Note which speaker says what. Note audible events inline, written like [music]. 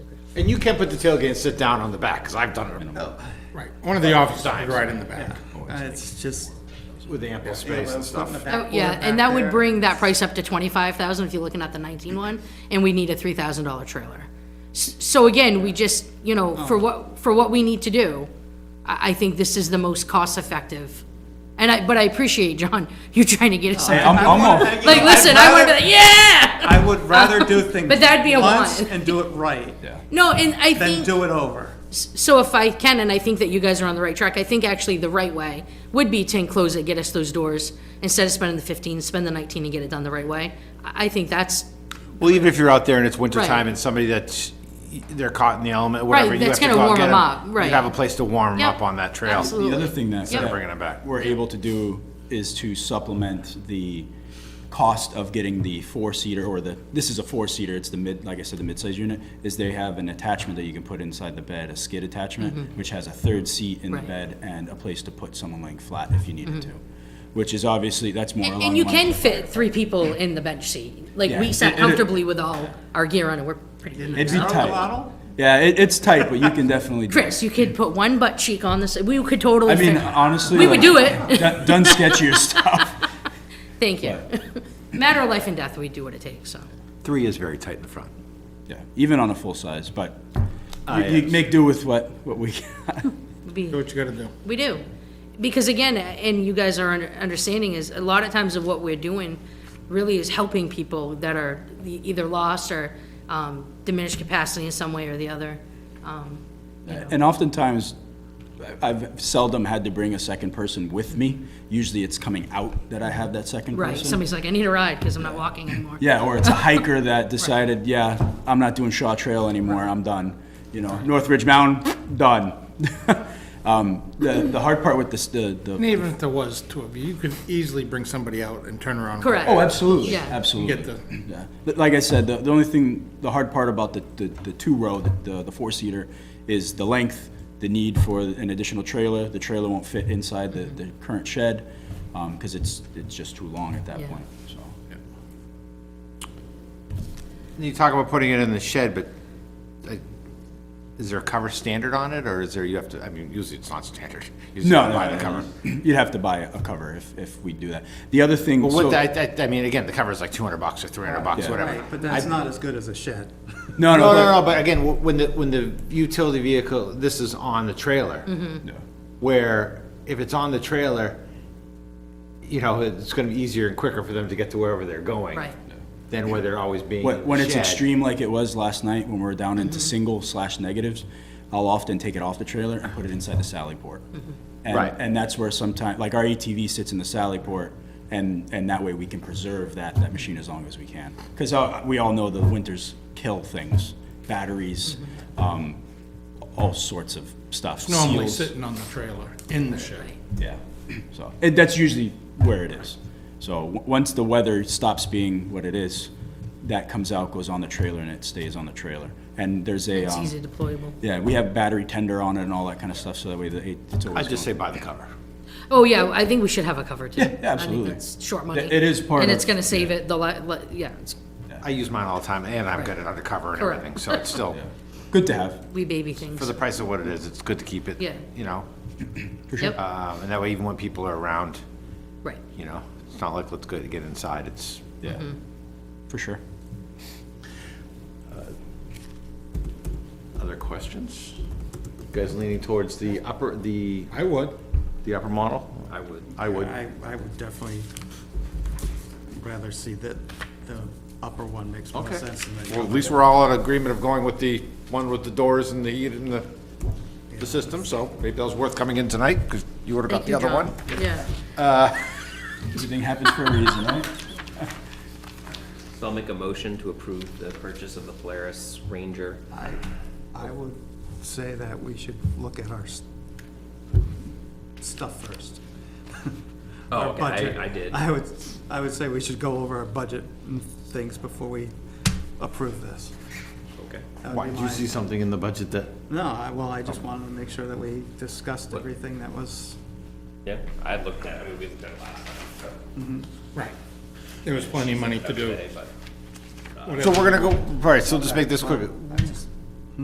Speaker 1: And you can't put the tailgate and sit down on the back, because I've done it
Speaker 2: Right, one of the offices is right in the back.
Speaker 3: Uh, It's just.
Speaker 1: with ample space and stuff.
Speaker 4: Oh, yeah, and that would bring that price up to twenty-five thousand if you're looking at the nineteen one, and we need a three thousand dollar trailer. S- So again, we just, you know,
Speaker 3: Oh.
Speaker 4: for what, for what we need to do, I, I think this is the most cost-effective. And I, but I appreciate, John, [laughs] you trying to get us something.
Speaker 3: I'm, I'm all-
Speaker 4: Like, listen, I wanna be like, yeah!
Speaker 3: [laughs] I would rather
Speaker 4: [laughs]
Speaker 3: do things.
Speaker 4: But that'd be a
Speaker 3: once
Speaker 4: one.
Speaker 3: And do it right,
Speaker 4: No, and I
Speaker 3: than
Speaker 4: think,
Speaker 3: do it over.
Speaker 4: so if I can, and I think that you guys are on the right track, I think actually the right way would be to enclose it, get us those doors, instead of spending the fifteen, spend the nineteen and get it done the right way. I, I think that's
Speaker 1: Well, even if you're out there and it's winter
Speaker 4: Right.
Speaker 1: time and somebody that's, they're caught in the element, whatever,
Speaker 4: Right,
Speaker 1: you have
Speaker 4: that's
Speaker 1: to
Speaker 4: gonna
Speaker 1: go out and
Speaker 4: warm
Speaker 1: get
Speaker 4: 'em up,
Speaker 1: them. You
Speaker 4: right.
Speaker 1: have a place to warm them
Speaker 4: Yep,
Speaker 1: up on that trail.
Speaker 4: absolutely.
Speaker 5: The other thing that.
Speaker 4: Yep.
Speaker 1: They're bringing it back.
Speaker 5: We're able to do is to supplement the cost of getting the four-seater or the, this is a four-seater, it's the mid, like I said, the mid-size unit, is they have an attachment that you can put inside the bed, a skid attachment, which has a third seat in the
Speaker 4: Mm-hmm. Right.
Speaker 5: bed and a place to put someone laying flat if you needed to, which is obviously, that's more
Speaker 4: Mm-hmm. And,
Speaker 5: along.
Speaker 4: and you
Speaker 5: lines
Speaker 4: can
Speaker 5: of-
Speaker 4: fit three people in the bench seat. Like we
Speaker 5: Yeah.
Speaker 4: sat
Speaker 5: It- it-
Speaker 4: comfortably with all our gear on, and we're pretty.
Speaker 5: It'd
Speaker 4: good.
Speaker 5: be tight. Yeah, it, it's tight, but you can definitely. do it.
Speaker 4: Chris, you could put one butt cheek on this. We could totally.
Speaker 5: I mean,
Speaker 4: fit-
Speaker 5: honestly.
Speaker 4: we would
Speaker 5: like,
Speaker 4: do it.
Speaker 5: Done done
Speaker 4: [laughs]
Speaker 5: sketchier stuff.
Speaker 4: Thank you. [laughs] Matter of life and death, we do what it takes. So
Speaker 1: Three is very tight in the front.
Speaker 5: Yeah, even on a full size, but you, you make do with what, what we got.
Speaker 4: be,
Speaker 2: Do what you gotta do.
Speaker 4: we do, because again, and you guys are under- understanding is a lot of times of what we're doing really is helping people that are e- either lost or um, diminished capacity in some way or the other. Um,
Speaker 5: [laughs] And oftentimes, I- I've seldom had to bring a second person with me. Usually it's coming out that I have that second
Speaker 4: right?
Speaker 5: person.
Speaker 4: Somebody's like, I need a ride because I'm not walking anymore.
Speaker 5: Yeah, or it's a hiker that decided, yeah, I'm not doing Shaw Trail anymore, I'm done. You know, Northridge Mountain, done. [laughs] Um, the, the hard part with this, the,
Speaker 2: And
Speaker 5: the,
Speaker 2: even if there was two of you, you could easily bring somebody out and turn around. and
Speaker 4: Correct.
Speaker 5: oh, absolutely,
Speaker 4: Yeah.
Speaker 5: absolutely.
Speaker 2: Get the,
Speaker 5: Yeah, But like I said, the, the only thing, the hard part about the, the, the two-row, the, the four-seater, is the length, the need for an additional trailer, the trailer won't fit inside the, the current shed, um, cause it's, it's just too long at that
Speaker 4: Yeah.
Speaker 5: point, so.
Speaker 1: You talk about putting it in the shed, but like, is there a cover standard on it, or is there, you have to, I mean, usually it's not standard. Usually
Speaker 5: No,
Speaker 1: you
Speaker 5: no,
Speaker 1: buy the
Speaker 5: no, no,
Speaker 1: cover.
Speaker 5: no. you'd have to buy a cover if, if we do that. The other thing,
Speaker 1: Well,
Speaker 5: so,
Speaker 1: what, I, I, I mean, again, the cover's like two hundred bucks or three hundred bucks,
Speaker 5: Yeah.
Speaker 1: whatever.
Speaker 3: But that's not as good as a shed.
Speaker 5: no,
Speaker 1: No, no,
Speaker 5: no,
Speaker 1: no, but again, w- when the, when the utility vehicle, this is on the trailer.
Speaker 5: but- no.
Speaker 1: where if it's on the trailer, you know, it's gonna be easier and quicker for them to get to wherever they're going.
Speaker 4: Right. Yeah.
Speaker 1: Than where they're always being.
Speaker 5: When, when it's
Speaker 1: shed. Mm-hmm.
Speaker 5: extreme like it was last night, when we're down into single slash negatives, I'll often take it off the trailer and put it inside the sally port. And,
Speaker 1: Mm-hmm. Right.
Speaker 5: and that's where sometimes, like our ATV sits in the sally port, and, and that way we can preserve that, that machine as long as we can. Because we all know the winters kill things, batteries,
Speaker 1: Mm-hmm.
Speaker 5: um, all sorts of stuff.
Speaker 2: normally
Speaker 5: seals.
Speaker 2: sitting on the trailer in the shed.
Speaker 5: Yeah, so, it, that's usually where it is. So, w- once the weather stops being what it is, that comes out, goes on the trailer, and it stays on the trailer. And there's a,
Speaker 4: It's
Speaker 5: um,
Speaker 4: easy deployable.
Speaker 5: yeah, we have battery tender on it and all that kind of stuff, so that way the, it- it's always.
Speaker 1: I'd just say buy the cover.
Speaker 4: Oh, yeah, I think we should have a cover too. I think
Speaker 5: absolutely.
Speaker 4: that's short money.
Speaker 5: It- it is part
Speaker 4: And
Speaker 5: of-
Speaker 4: it's gonna save it, the, li- li- yeah, it's,
Speaker 1: I use mine all the time and I've got it undercover and
Speaker 4: Correct.
Speaker 1: everything, so it's
Speaker 5: [laughs]
Speaker 1: still,
Speaker 5: Good to have,
Speaker 4: we baby
Speaker 1: for
Speaker 4: things.
Speaker 1: the price of what it is, it's good to keep it.
Speaker 4: Yeah.
Speaker 1: You know,
Speaker 5: for sure.
Speaker 4: Yep,
Speaker 1: um, and that way even when people are around,
Speaker 4: right.
Speaker 1: you know, it's not like, let's go to get inside, it's,
Speaker 5: Yeah,
Speaker 4: Mm-hmm.
Speaker 5: for sure.
Speaker 1: other questions? You Guys leaning towards the upper, the,
Speaker 2: I would.
Speaker 1: the upper model? I would. I would.
Speaker 3: I, I would definitely rather see that the upper one makes more
Speaker 1: Okay.
Speaker 3: sense than the.
Speaker 1: Well, at least we're all in agreement of going with the one with the doors and the heat and the, the system, so maybe that was worth coming in tonight, because you would've got
Speaker 4: Thank
Speaker 1: the
Speaker 4: you,
Speaker 1: other
Speaker 4: John.
Speaker 1: one.
Speaker 4: Yeah,
Speaker 5: Everything happens for a reason, right?
Speaker 6: So I'll make a motion to approve the purchase of the Polaris Ranger.
Speaker 3: I, I would say that we should look at our s- stuff first. Our
Speaker 6: Oh, okay,
Speaker 3: budget.
Speaker 6: I, I did.
Speaker 3: I would, I would say we should go over our budget and things before we approve this.
Speaker 6: Okay.
Speaker 3: That would be my-
Speaker 1: something in the budget that?
Speaker 3: No, I, well, I just wanted to make sure that we discussed everything that was,
Speaker 6: Yeah, I looked at, I mean, we looked at it last time, so,
Speaker 2: Right. There was plenty of money to do.
Speaker 6: today, but.
Speaker 1: So we're gonna go, all right, so just make this quick.
Speaker 3: I just